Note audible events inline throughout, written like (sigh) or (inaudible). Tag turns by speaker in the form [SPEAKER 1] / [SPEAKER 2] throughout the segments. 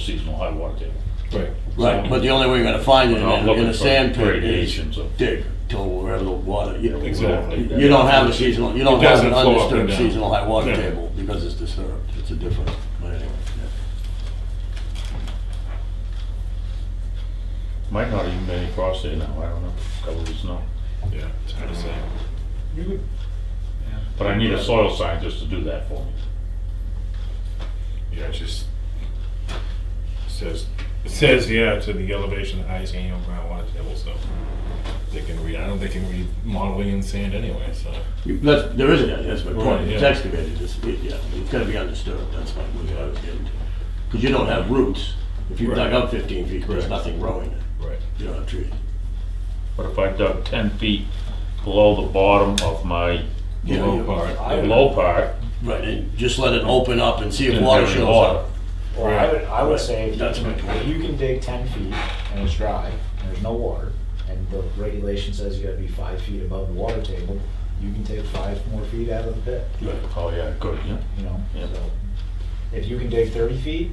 [SPEAKER 1] seasonal high water table.
[SPEAKER 2] Right, right, but the only way you're gonna find it in,
[SPEAKER 1] We're not
[SPEAKER 2] a- in
[SPEAKER 1] looking
[SPEAKER 2] a
[SPEAKER 1] for
[SPEAKER 2] sand pit is
[SPEAKER 1] gradations of-
[SPEAKER 2] dig till wherever the water, you know.
[SPEAKER 1] Exactly.
[SPEAKER 2] You don't have a seasonal, you don't
[SPEAKER 1] It
[SPEAKER 2] have an
[SPEAKER 1] doesn't flow up and
[SPEAKER 2] undisturbed
[SPEAKER 1] down.
[SPEAKER 2] seasonal high water
[SPEAKER 1] Yeah.
[SPEAKER 2] table because it's disturbed, it's a different, but anyway. yeah.
[SPEAKER 1] Might not even be any frost there now, I don't know, covered with snow.
[SPEAKER 3] Yeah, it's hard to say.
[SPEAKER 1] But I need a soil scientist to do that for me.
[SPEAKER 3] Yeah, it just says, it says, yeah, to the elevation of the highest annual groundwater table, so they can read, I don't think they can read modeling in sand anyway, so.
[SPEAKER 2] You- That's, there is a, that's my
[SPEAKER 3] Right,
[SPEAKER 2] point, it's
[SPEAKER 3] yeah.
[SPEAKER 2] excavated, it's, it- yeah, it's gotta be undisturbed, that's my, what I was getting to. Cause you don't have roots, if you dug
[SPEAKER 3] Right.
[SPEAKER 2] up fifteen feet, there's
[SPEAKER 3] Correct.
[SPEAKER 2] nothing growing,
[SPEAKER 3] Right.
[SPEAKER 2] you don't have trees.
[SPEAKER 1] But if I dug ten feet below the bottom of my
[SPEAKER 2] Yeah,
[SPEAKER 3] Low
[SPEAKER 2] you-
[SPEAKER 3] part, yeah.
[SPEAKER 1] low part,
[SPEAKER 2] Right, and just let it open up and see if
[SPEAKER 1] And
[SPEAKER 2] water
[SPEAKER 1] have
[SPEAKER 2] shows
[SPEAKER 1] water.
[SPEAKER 2] up.
[SPEAKER 4] Well, I would, I would say if you
[SPEAKER 2] That's my point.
[SPEAKER 4] if you can dig ten feet and it's dry, and there's no water, and the regulation says you gotta be five feet above the water table, you can take five more feet out of the pit,
[SPEAKER 1] oh yeah, good, yeah.
[SPEAKER 4] you know,
[SPEAKER 1] Yeah.
[SPEAKER 4] so. If you can dig thirty feet,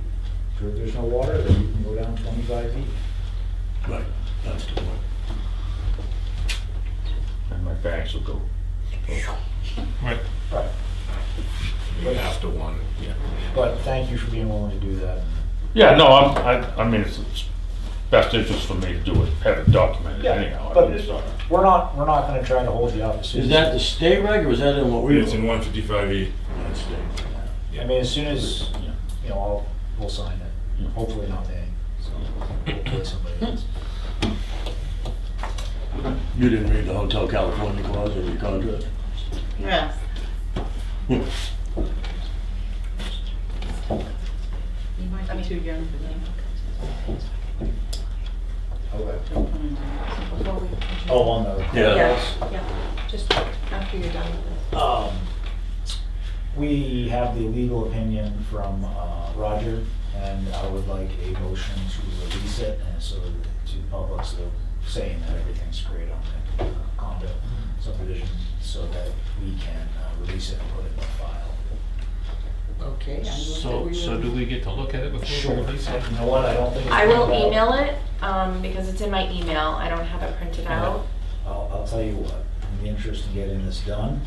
[SPEAKER 4] if there's no water, then you can go down twenty-five feet.
[SPEAKER 2] Right, that's the point.
[SPEAKER 1] And my bags will go.
[SPEAKER 3] Right.
[SPEAKER 4] Right.
[SPEAKER 3] You have to one, yeah.
[SPEAKER 4] But thank you for being willing to do that.
[SPEAKER 1] Yeah, no, I'm, I, I mean, it's it's best interest for me to do it, have it documented anyhow. I
[SPEAKER 4] But
[SPEAKER 1] mean, it's not-
[SPEAKER 4] we're not, we're not gonna try to hold you up. As soon
[SPEAKER 2] Is
[SPEAKER 4] as-
[SPEAKER 2] that the state reg or is that in what we?
[SPEAKER 3] It's in one fifty-five E.
[SPEAKER 2] That's state.
[SPEAKER 4] I mean, as soon as,
[SPEAKER 1] yeah.
[SPEAKER 4] you know, I'll, we'll sign it, hopefully not me, so, hopefully somebody else.
[SPEAKER 2] You didn't read the Hotel California clause in your contract?
[SPEAKER 5] Yes. You might be too young for
[SPEAKER 4] Okay.
[SPEAKER 5] that.
[SPEAKER 4] Oh, on the.
[SPEAKER 2] Yeah.
[SPEAKER 5] Yeah, just after you're done with this.
[SPEAKER 4] Um, We have the legal opinion from uh, Roger, and I would like a motion to release it, and so that- to the public, so saying that everything's great on the uh, condo subdivision, so that we can uh, release it and put it in the file.
[SPEAKER 5] Okay.
[SPEAKER 6] So, so do we get to look at it before we release it?
[SPEAKER 4] You know what, I don't think. it's
[SPEAKER 7] I will
[SPEAKER 4] gonna-
[SPEAKER 7] email it, um, because it's in my email, I don't have it printed out.
[SPEAKER 4] I'll, I'll tell you what, in the interest of getting this done,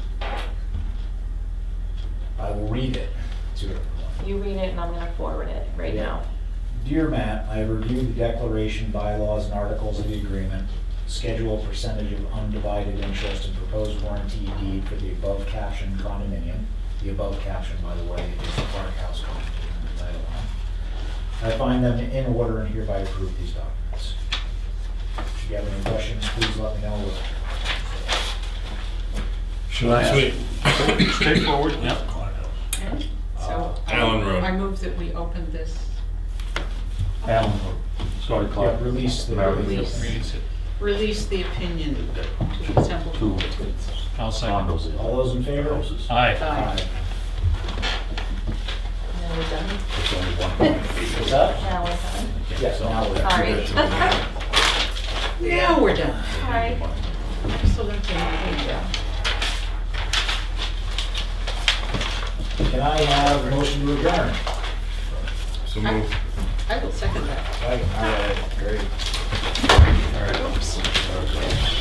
[SPEAKER 4] I will read it to everyone.
[SPEAKER 7] You read it and I'm gonna forward it right
[SPEAKER 4] Yeah.
[SPEAKER 7] now.
[SPEAKER 4] Dear Matt, I have reviewed the declaration, bylaws, and articles of the agreement, schedule percentage of undivided interest and proposed warranty deed for the above captioned condominium. The above caption, by the way, is the Park House condominium, Title I. I find them in order and hereby approve these documents. If you have any questions, please let me know.
[SPEAKER 2] Should I ask?
[SPEAKER 3] Sweet.
[SPEAKER 6] Straightforward?
[SPEAKER 2] Yeah. Courthouse.
[SPEAKER 5] Okay, So I-
[SPEAKER 3] Allen Road.
[SPEAKER 5] I move that we open this.
[SPEAKER 1] Alan, sorry,
[SPEAKER 4] Yeah,
[SPEAKER 1] Clark.
[SPEAKER 4] Release the.
[SPEAKER 1] Mary.
[SPEAKER 6] Release it.
[SPEAKER 5] Release the opinion to the sample.
[SPEAKER 1] Two
[SPEAKER 6] I'll second.
[SPEAKER 1] condos. there.
[SPEAKER 4] All those in favor?
[SPEAKER 1] Houses.
[SPEAKER 6] Aye.
[SPEAKER 5] Aye.
[SPEAKER 4] Aye.
[SPEAKER 7] Now we're done?
[SPEAKER 1] It's only one hundred feet.
[SPEAKER 4] What's that?
[SPEAKER 7] Now we're done.
[SPEAKER 4] Yes, now we're.
[SPEAKER 7] Sorry. (laughs)
[SPEAKER 5] Now we're done.
[SPEAKER 7] Sorry.
[SPEAKER 5] I'm still gonna take my picture.
[SPEAKER 4] Can I have a motion to adjourn?
[SPEAKER 3] So move.
[SPEAKER 5] I will second that.
[SPEAKER 4] Right, all right, great.
[SPEAKER 5] Oops.